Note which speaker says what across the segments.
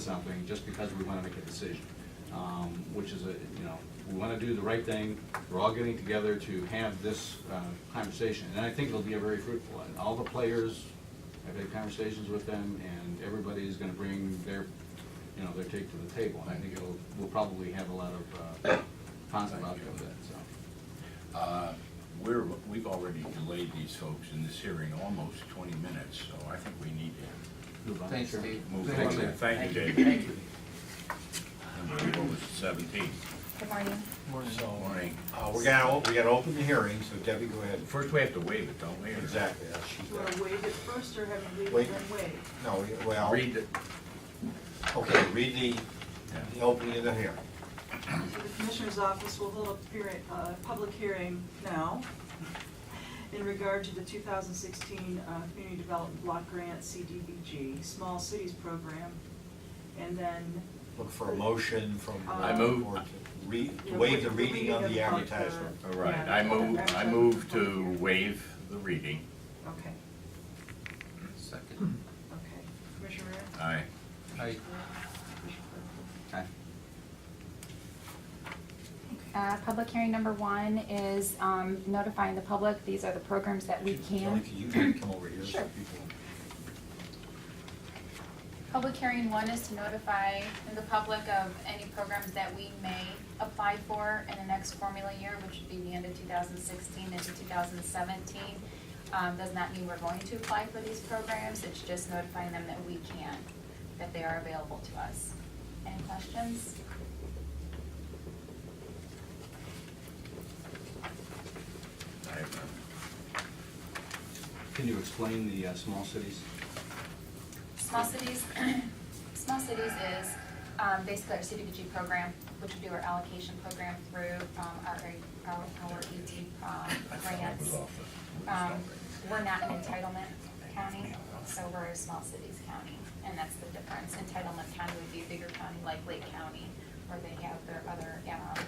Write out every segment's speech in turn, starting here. Speaker 1: something just because we want to make a decision, um, which is a, you know, we want to do the right thing. We're all getting together to have this uh, conversation, and I think it'll be a very fruitful one. All the players, I've had conversations with them, and everybody's going to bring their, you know, their take to the table. And I think it'll, we'll probably have a lot of uh, positive outcome of that, so.
Speaker 2: Uh, We're, we've already delayed these folks in this hearing almost 20 minutes, so I think we need to
Speaker 1: move on.
Speaker 3: Thanks,
Speaker 1: Sure.
Speaker 3: Steve.
Speaker 2: move
Speaker 1: Thank
Speaker 2: on.
Speaker 1: you.
Speaker 2: Thank you, David.
Speaker 3: Thank you.
Speaker 2: And What was it, 17?
Speaker 4: Good morning.
Speaker 5: So,
Speaker 2: Morning.
Speaker 5: uh, we're gonna, op- we gotta open the hearing, so Debbie, go ahead.
Speaker 2: First, we have to waive it, don't we? or-
Speaker 5: Exactly, that's she's
Speaker 6: Do I
Speaker 5: got.
Speaker 6: waive it first or have you leave
Speaker 5: Wait.
Speaker 6: it and waive?
Speaker 5: No, we- well,
Speaker 2: Read the,
Speaker 5: okay, read the, the opening of the hearing.
Speaker 6: So the Commissioner's Office will hold a hearing, uh, public hearing now in regard to the 2016 uh, Community Development Block Grant, CDBG, Small Cities Program. And then,
Speaker 5: Look for a motion from. the
Speaker 6: I
Speaker 2: move-
Speaker 5: board to Re, to waive the
Speaker 6: Yeah, waive the
Speaker 5: reading of the
Speaker 6: reading of the- uh,
Speaker 5: advertisement.
Speaker 2: all right, I move, I move to waive the reading.
Speaker 6: okay,
Speaker 3: Second.
Speaker 6: okay. Commissioner Rea?
Speaker 2: Aye.
Speaker 3: Aye.
Speaker 6: Commissioner Claypool?
Speaker 1: Okay.
Speaker 4: Uh, Public hearing number one is um, notifying the public, these are the programs that we can.
Speaker 5: Kelly, can you can come over here so
Speaker 4: Sure.
Speaker 5: people?
Speaker 4: Public hearing one is to notify the public of any programs that we may apply for in the next formula year, which would be the end of 2016 into 2017. Um, Does not mean we're going to apply for these programs, it's just notifying them that we can, that they are available to us. Any questions?
Speaker 2: I have none.
Speaker 1: Can you explain the uh, small cities?
Speaker 4: Small cities, small cities is um, basically our CDBG program, which would do our allocation program through um, our, our our ED um,
Speaker 2: I thought it was
Speaker 4: grants.
Speaker 2: off the-
Speaker 4: Um, We're not an entitlement county, so we're a small cities county, and that's the difference. Entitlement county would be a bigger county like Lake County, where they have their other, um,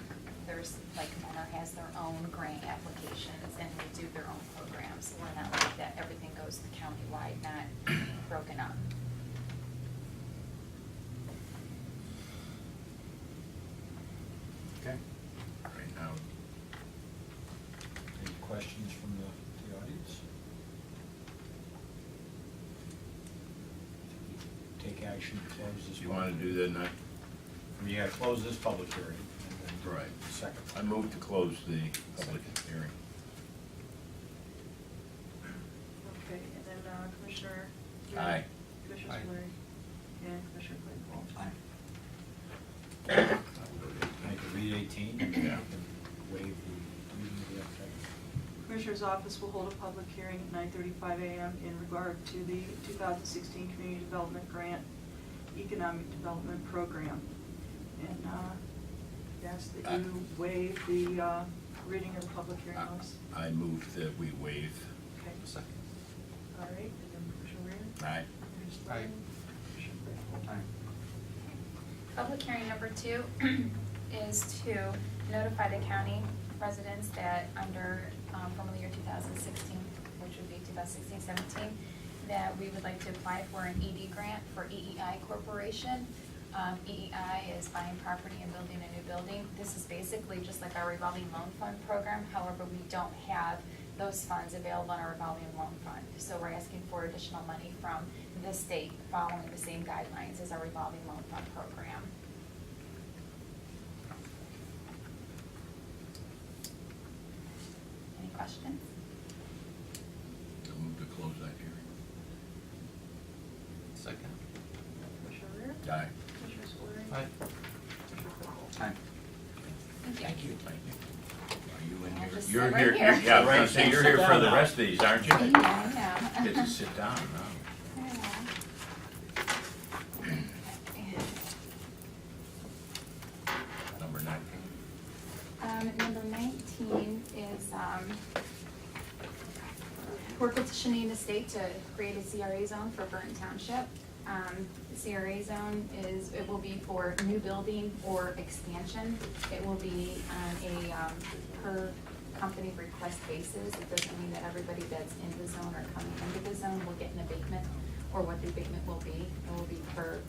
Speaker 4: there's, like Menor has their own grant applications and they do their own programs. We're not like that, everything goes countywide, not broken up.
Speaker 1: Okay.
Speaker 2: Right now,
Speaker 5: Any questions from the, the audience? Take action to close this.
Speaker 2: do you want to do the, night?
Speaker 5: We gotta close this public hearing and then. do
Speaker 2: Right.
Speaker 5: the Second.
Speaker 2: I move to close the public hearing.
Speaker 6: Okay, and then uh, Commissioner? Rea?
Speaker 2: Aye.
Speaker 6: Commissioner
Speaker 3: Aye.
Speaker 6: Spillier? And Commissioner Claypool?
Speaker 1: Aye.
Speaker 5: I can read eighteen and then I can waive the reading of the advertisement.
Speaker 6: Commissioner's office will hold a public hearing at nine thirty-five AM in regard to the two thousand sixteen Community Development Grant Economic Development Program. And, uh, ask that you waive the, uh, reading of the public hearing
Speaker 3: uh,
Speaker 6: notice.
Speaker 2: I move that we waive.
Speaker 6: Okay,
Speaker 3: Second.
Speaker 6: all right, and then Commissioner Reer?
Speaker 2: Aye.
Speaker 6: Commissioner Spillier?
Speaker 3: Aye.
Speaker 6: Commissioner Claypool?
Speaker 1: Aye.
Speaker 4: Public hearing number two is to notify the county residents that under um, from the year 2016, which would be 2016, 17, that we would like to apply for an ED grant for EEI Corporation. Um, EEI is buying property and building a new building. This is basically just like our revolving loan fund program, however, we don't have those funds available in our revolving loan fund. So we're asking for additional money from the state following the same guidelines as our revolving loan fund program. Any questions?
Speaker 2: I move to close that hearing.
Speaker 3: Second.
Speaker 6: Commissioner Reer?
Speaker 2: Aye.
Speaker 6: Commissioner Spillier?
Speaker 3: Aye.
Speaker 6: Commissioner Claypool?
Speaker 1: Aye.
Speaker 2: Thank you. Thank you. Are you in
Speaker 4: I'll
Speaker 2: here?
Speaker 4: just
Speaker 2: You're
Speaker 4: sit right here.
Speaker 2: Yeah, I was gonna
Speaker 5: Right,
Speaker 2: say, you're
Speaker 5: sit
Speaker 2: here for
Speaker 5: down
Speaker 2: the
Speaker 5: now.
Speaker 2: rest of these, aren't you?
Speaker 4: Yeah, I know.
Speaker 2: Get to sit down, huh? Number nineteen.
Speaker 4: Um, number nineteen is, um, we're petitioning the state to create a CRA zone for Burton Township. Um, the CRA zone is, it will be for new building or expansion. It will be on a, um, per company request basis. It doesn't mean that everybody that's in the zone or coming into the zone will get an abatement or what the abatement will be. It will be per